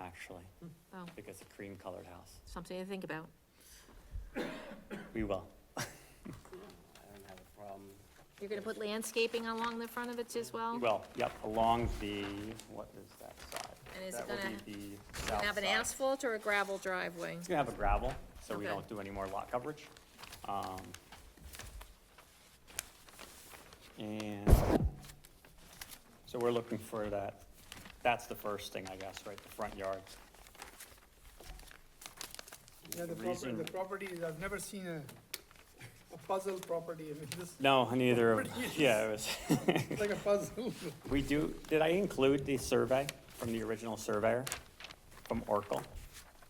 actually, Oh, I think it's a cream colored house. something to think about. We will. I don't have a problem. You're gonna put landscaping along the front of it as well? Well, yep, along the, what is that side? And is it That would gonna- be the Gonna south Have an side. asphalt or a gravel driveway? It's gonna have a gravel, so we Okay. don't do any more lot coverage. Um, And, so we're looking for that, that's the first thing, I guess, right, the front yard. Yeah, the property, reason- the property, is- I've never seen a, a puzzle property, I mean, this No, neither of, Pretty. yeah, it was, is like a puzzle. we do, did I include the survey from the original surveyor, from Oracle?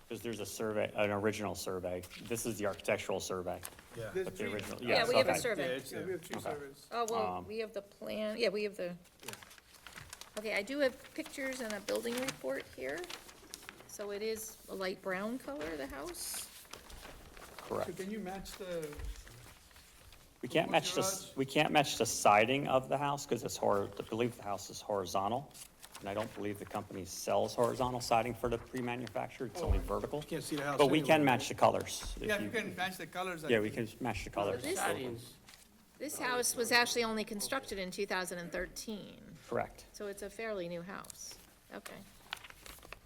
Because there's a survey, an original survey, this is the architectural survey, There's but the three- original, Yeah, yes, we have a okay. survey. Yeah, we have three uh, servers. Oh, well, Um, we have the plan, yeah, we have the. Okay, I do have pictures and a building report here. So it is a light brown color, the house. Correct. So can you match the, We can't Proposed match this, garage? we can't match the siding of the house because it's hor, I believe the house is horizontal. And I don't believe the company sells horizontal siding for the pre-manufactured, it's only vertical. Can't see the house But we can anyway. match the colors. if yeah, if you can match the colors. I Yeah, we think. can match the colors, this- Siding's This house was actually only constructed in two thousand and thirteen, correct. so it's a fairly new house. Okay.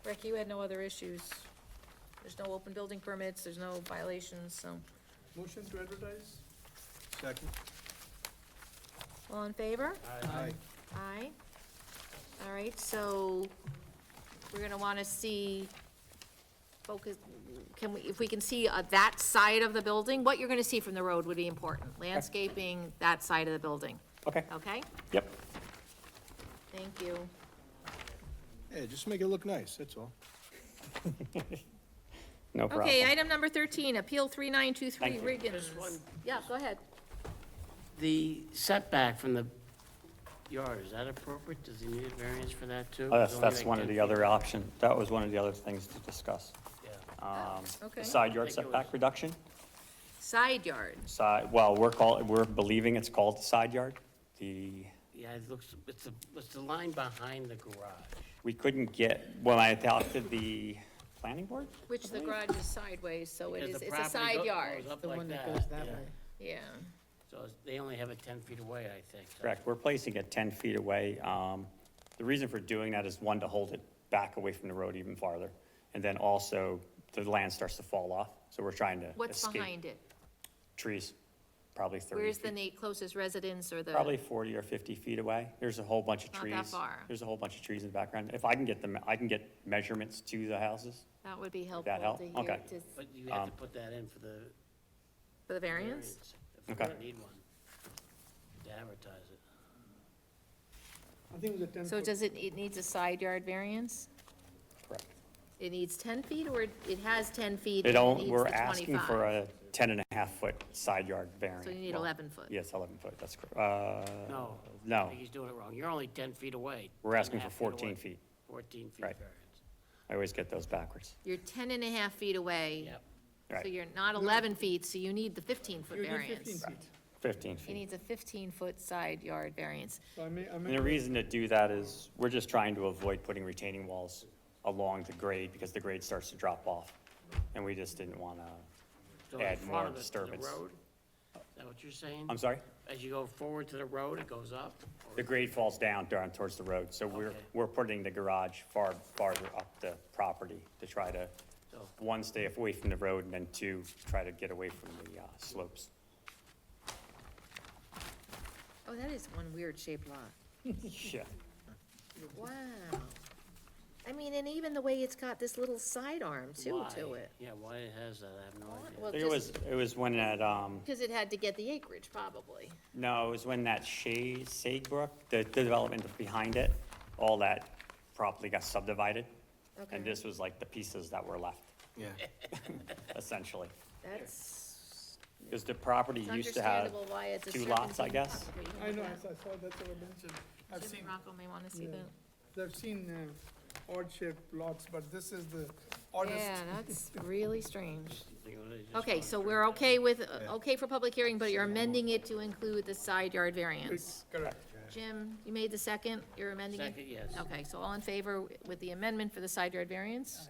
Rick, you had no other issues. There's no open building permits, there's no violations, so. Motion to advertise? Second. All in favor? Aye. Aye. All right, so we're gonna wanna see, focus, can we, if we can see uh, that side of the building, what you're gonna see from the road would be important. Landscaping, that side of the building, Okay, okay? yep, Thank you. Hey, just make it look nice, that's all. no problem. Okay, item number thirteen, Appeal three nine two three Thank you. Riggins. Yeah, go ahead. The setback from the yard, is that appropriate? Does he need a variance for that too? Oh, That's, It's only that's like one of 10 the feet. other option, that was one of the other things to discuss. Yeah. Um, okay. the Side yard Think it setback was- reduction, Side yard, side, well, we're call, we're believing it's called the side yard. The Yeah, it looks, it's the, it's the line behind the garage. We couldn't get, when I adopted the planning board? which the garage is sideways, so it Because is, the it's a property side go- yard, Goes up The like one that. that goes that yeah. way. yeah. So it's- they only have it ten feet away, I think. so- Correct, we're placing it 10 feet away. Um, The reason for doing that is, one, to hold it back away from the road even farther, and then also, the land starts to fall off, so we're trying to What's escape behind it? Trees, probably 30 Where's the feet. na- closest residence or the? Probably 40 or 50 feet away. There's a whole bunch of Not trees. that far. There's a whole bunch of trees in the background. If I can get them, I can get measurements to the houses. That would be helpful that help? to hear, Okay. to- But you Um, have to put that in for the for the variance? variance. If you're Okay. gonna need one, to advertise it. I think it was a ten So foot. does it, it needs a side yard variance? Correct. It needs ten feet, or it has ten feet? They and it don't, needs we're the asking 25? for a 10 and a half foot side yard variance. So you need Well, eleven foot? Yes, 11 foot, that's correct. Uh, No. I No, think he's doing it wrong. You're only ten feet away. we're asking 10 for and a half 14 away. feet. Fourteen feet Right. variance. I always get those backwards. You're ten and a half feet away, Yep. so Right, you're not eleven feet, so you need the fifteen foot You did 15 variance. feet. 15 It fean. needs a fifteen foot side yard variance. So I may, I And the may, reason to do that is we're just trying to avoid putting retaining walls along the grade because the grade starts to drop off. And we just didn't want to, So in Add front more of it to the disturbance. road? Is that what you're saying? I'm sorry? As you go forward to the road, it goes up? or- The grade falls down down towards the road, so we're, Okay. we're putting the garage far, farther up the property to try to, So- one, stay away from the road, and then two, try to get away from the uh, slopes. Oh, that is one weird shaped lot. Yeah, Wow. I mean, and even the way it's got this little sidearm too to Why? it. Yeah, why it has that, I have no idea. Well, I think it was, just, it was when that, um, because it had to get the acreage, probably. No, it was when that Shay, Sagebrook, the the development behind it, all that properly got subdivided. Okay. And this was like the pieces that were left, Yeah. essentially. That's Because the property It's used to have understandable why it's a two lots, I serpentine guess. property. I know, I saw I saw that's what I mentioned. I've seen, Jim Rocco may wanna see Yeah. that. I've seen uh, odd shaped lots, but this is the oddest. Yeah, that's really strange. Think of it as just Okay, going so through. we're okay with, uh, okay for public hearing, but you're amending it to include the side yard variance. Correct. Jim, you made the second, you're amending it? Second, yes. Okay, so all in favor with the amendment for the side yard variance?